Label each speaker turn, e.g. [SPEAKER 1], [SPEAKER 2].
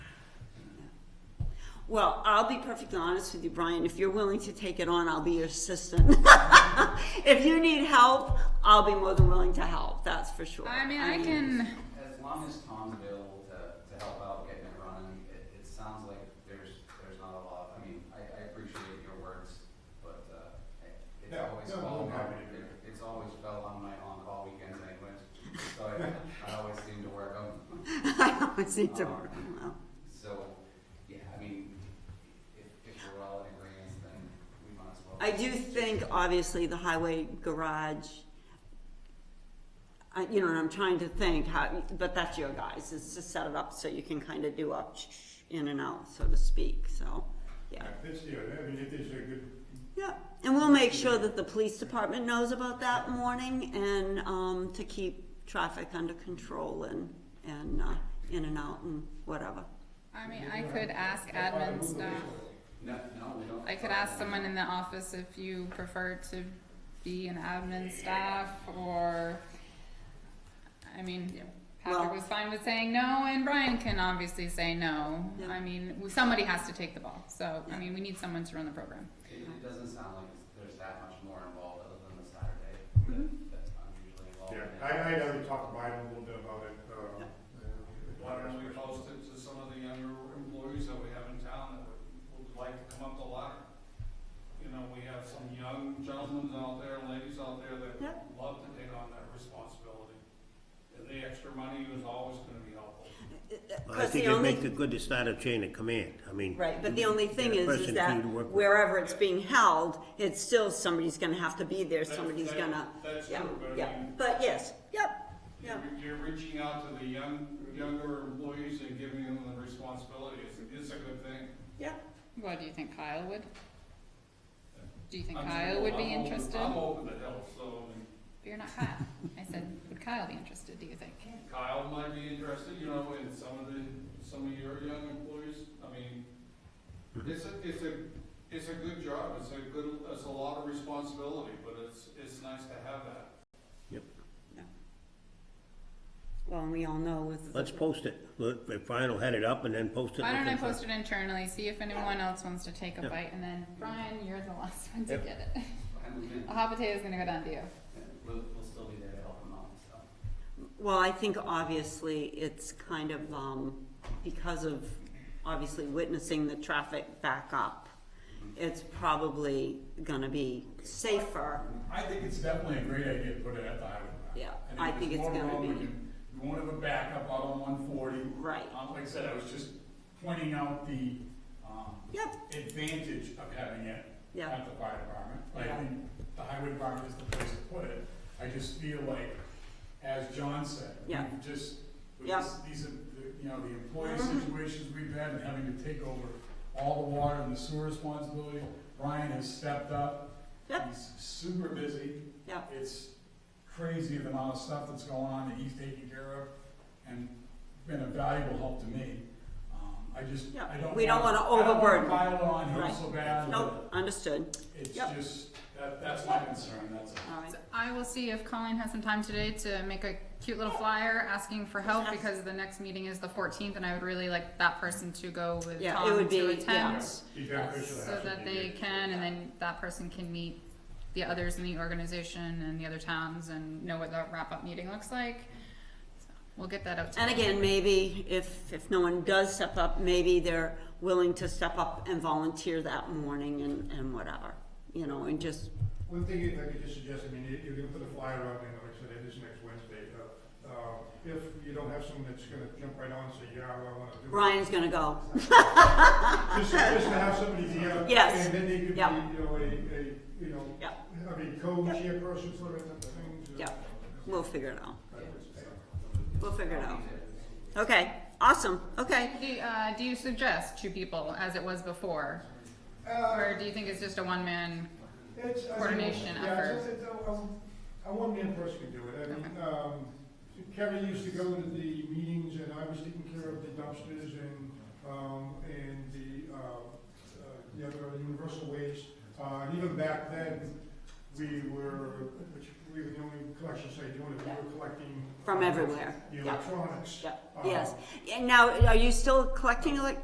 [SPEAKER 1] Well, I'll be perfectly honest with you, Brian. If you're willing to take it on, I'll be your assistant. if you need help, I'll be more than willing to help. That's for sure.
[SPEAKER 2] I mean, I can,
[SPEAKER 3] As long as Tom's available to, to help out getting it running, it, it sounds like there's, there's not a lot, I mean, I, I appreciate your words, but, uh, it- it's
[SPEAKER 4] No,
[SPEAKER 3] always
[SPEAKER 4] no,
[SPEAKER 3] fell
[SPEAKER 4] I'm
[SPEAKER 3] on my,
[SPEAKER 4] happy to do
[SPEAKER 3] it- it's always fell on my on-call weekends anyways, so I, I always seem to work on,
[SPEAKER 1] I always need to work on that.
[SPEAKER 3] so, yeah, I mean, if, if we're all in agreement, then we might as well.
[SPEAKER 1] I do think, obviously, the highway garage, I, you know, and I'm trying to think how, but that's your guys, is to set it up so you can kind of do up in and out, so to speak, so, yeah.
[SPEAKER 4] That's the, I mean, it is a good,
[SPEAKER 1] Yeah, and we'll make sure that the police department knows about that morning and, um, to keep traffic under control and, and, uh, in and out and whatever.
[SPEAKER 2] I mean, I could ask admin staff.
[SPEAKER 3] No, no, we don't.
[SPEAKER 2] I could ask someone in the office if you prefer to be an admin staff or, I mean, Patrick
[SPEAKER 1] Well-
[SPEAKER 2] was fine with saying no and Brian can obviously say no.
[SPEAKER 1] Yeah.
[SPEAKER 2] I mean, somebody has to take the ball, so, I mean, we need someone to run the program.
[SPEAKER 3] It, it doesn't sound like it's- there's that much more involved other than the Saturday that, that I'm usually involved
[SPEAKER 4] Mm-hmm. yeah,
[SPEAKER 3] in.
[SPEAKER 4] I, I had already talked to Biden a little bit about it, uh.
[SPEAKER 5] Why don't we post it to some of the younger employees that we have in town that would, would like to come up the ladder? You know, we have some young gentlemen out there, and ladies out there that
[SPEAKER 1] Yep.
[SPEAKER 5] love to take on that responsibility. And the extra money is always gonna be helpful.
[SPEAKER 6] I
[SPEAKER 1] 'Cause
[SPEAKER 6] think
[SPEAKER 1] the
[SPEAKER 6] it
[SPEAKER 1] only
[SPEAKER 6] makes it good to start a chain of command, I mean.
[SPEAKER 1] Right, but the only thing is, is
[SPEAKER 6] person for you
[SPEAKER 1] that
[SPEAKER 6] to work with.
[SPEAKER 1] wherever it's being held, it's still, somebody's gonna have to be there,
[SPEAKER 5] That's-
[SPEAKER 1] somebody's
[SPEAKER 5] that-
[SPEAKER 1] gonna,
[SPEAKER 5] That's
[SPEAKER 1] yeah,
[SPEAKER 5] true, but
[SPEAKER 1] yeah,
[SPEAKER 5] I mean,
[SPEAKER 1] but yes, yep, yeah.
[SPEAKER 5] you're, you're reaching out to the young, younger employees and giving them the responsibility, it's, it's a good thing.
[SPEAKER 1] yep.
[SPEAKER 2] What, do you think Kyle would? Do you think
[SPEAKER 5] I'm-
[SPEAKER 2] Kyle would be
[SPEAKER 5] I'm open-
[SPEAKER 2] interested?
[SPEAKER 5] I'm open to help, so, I mean,
[SPEAKER 2] But you're not Kyle. I said, would Kyle be interested, do you think?
[SPEAKER 5] Kyle might be interested, you know, in some of the, some of your young employees, I mean, it's a, it's a, it's a good job, it's a good, it's a lot of responsibility, but it's, it's nice to have that.
[SPEAKER 1] Well, and we all know with.
[SPEAKER 6] Let's post it, Let- if Brian will head it up and then post it.
[SPEAKER 2] Why don't I
[SPEAKER 6] within-
[SPEAKER 2] post it internally, see if anyone else wants to take a
[SPEAKER 6] Yeah.
[SPEAKER 2] bite, and then Brian, you're the last one to
[SPEAKER 6] Yep.
[SPEAKER 2] get it.
[SPEAKER 3] And we can-
[SPEAKER 2] A hot potato's gonna go down to you.
[SPEAKER 3] We'll, we'll still be there to help them out, so.
[SPEAKER 1] Well, I think obviously it's kind of, um, because of obviously witnessing the traffic back up, it's probably gonna be safer,
[SPEAKER 7] I think it's definitely a great idea to put it at the highway. garage.
[SPEAKER 1] Yeah, I think it's
[SPEAKER 7] there's more
[SPEAKER 1] gonna
[SPEAKER 7] room, we
[SPEAKER 1] be-
[SPEAKER 7] can- We won't have a backup out on one forty.
[SPEAKER 1] right?
[SPEAKER 7] Um, like I said, I was just pointing out the, um,
[SPEAKER 1] Yep,
[SPEAKER 7] advantage of having it
[SPEAKER 1] Yeah.
[SPEAKER 7] at the fire department.
[SPEAKER 1] Yeah.
[SPEAKER 7] I think the highway department is the place to put it. I just feel like, as John said,
[SPEAKER 1] Yeah.
[SPEAKER 7] we've just, with
[SPEAKER 1] Yeah. Mm-hmm.
[SPEAKER 7] this- these, are the- you know, the employee situations we've had and having to take over all the water and the sewer responsibility, Brian has stepped up.
[SPEAKER 1] Yep.
[SPEAKER 7] He's super busy.
[SPEAKER 1] Yep.
[SPEAKER 7] It's crazy the amount of stuff that's going on that he's taking care of and been a valuable help to me. Um, I just,
[SPEAKER 1] Yeah,
[SPEAKER 7] I don't.
[SPEAKER 1] we don't
[SPEAKER 7] wanna-
[SPEAKER 1] wanna overburden.
[SPEAKER 7] I don't wanna pile on
[SPEAKER 1] Right.
[SPEAKER 7] him so bad.
[SPEAKER 1] nope, understood,
[SPEAKER 7] that It's
[SPEAKER 1] Yep.
[SPEAKER 7] just, that, that's my concern, that's all.
[SPEAKER 1] all right.
[SPEAKER 2] So I will see if Colleen has some time today to make a cute little flyer asking for help, because the next meeting is the fourteenth, and I would really like that person to go with
[SPEAKER 1] Yeah, it
[SPEAKER 2] Tom
[SPEAKER 1] would
[SPEAKER 2] to
[SPEAKER 1] be-
[SPEAKER 2] attend.
[SPEAKER 4] Be beneficial to
[SPEAKER 2] So
[SPEAKER 4] have
[SPEAKER 2] that
[SPEAKER 4] somebody
[SPEAKER 2] they
[SPEAKER 4] here.
[SPEAKER 2] can, and then that person can meet the others in the organization and the other towns and know what the wrap-up meeting looks like. So We'll get that out to
[SPEAKER 1] And
[SPEAKER 2] them.
[SPEAKER 1] again, maybe if, if no one does step up, maybe they're willing to step up and volunteer that morning and, and whatever, you know, and just,
[SPEAKER 4] One thing if I could just suggest, I mean, you, you can put a flyer out, and like I said, it is next Wednesday, uh, uh, if you don't have someone that's gonna jump right on and say, yeah, well, I wanna do it.
[SPEAKER 1] Brian's gonna go.
[SPEAKER 4] Just, just to have somebody there.
[SPEAKER 1] Yes.
[SPEAKER 4] And then they could be, you
[SPEAKER 1] Yep.
[SPEAKER 4] know, a, a, you know,
[SPEAKER 1] Yep.
[SPEAKER 4] I mean, co-chairperson sort of thing. to-
[SPEAKER 1] Yep. We'll figure it out. We'll figure it out. Okay, awesome, okay.
[SPEAKER 2] Do, you, uh, do you suggest two people as it was before? Or do you think it's just a one-man?
[SPEAKER 4] Uh, It's, I mean,
[SPEAKER 2] Coordination
[SPEAKER 4] yeah,
[SPEAKER 2] effort.
[SPEAKER 4] it's- it's a- a- A one-man person can do it, I mean, um, Kevin used to go to the meetings and I was taking care of the dumpsters and, um, and the, uh, uh, the other universal waste. Uh, and even back then, we were, which, we were the only collection site doing it, we were collecting. uh,
[SPEAKER 1] From everywhere,
[SPEAKER 4] The
[SPEAKER 1] yeah.
[SPEAKER 4] electronics.
[SPEAKER 1] Yep, yes. And now, are you still collecting elec-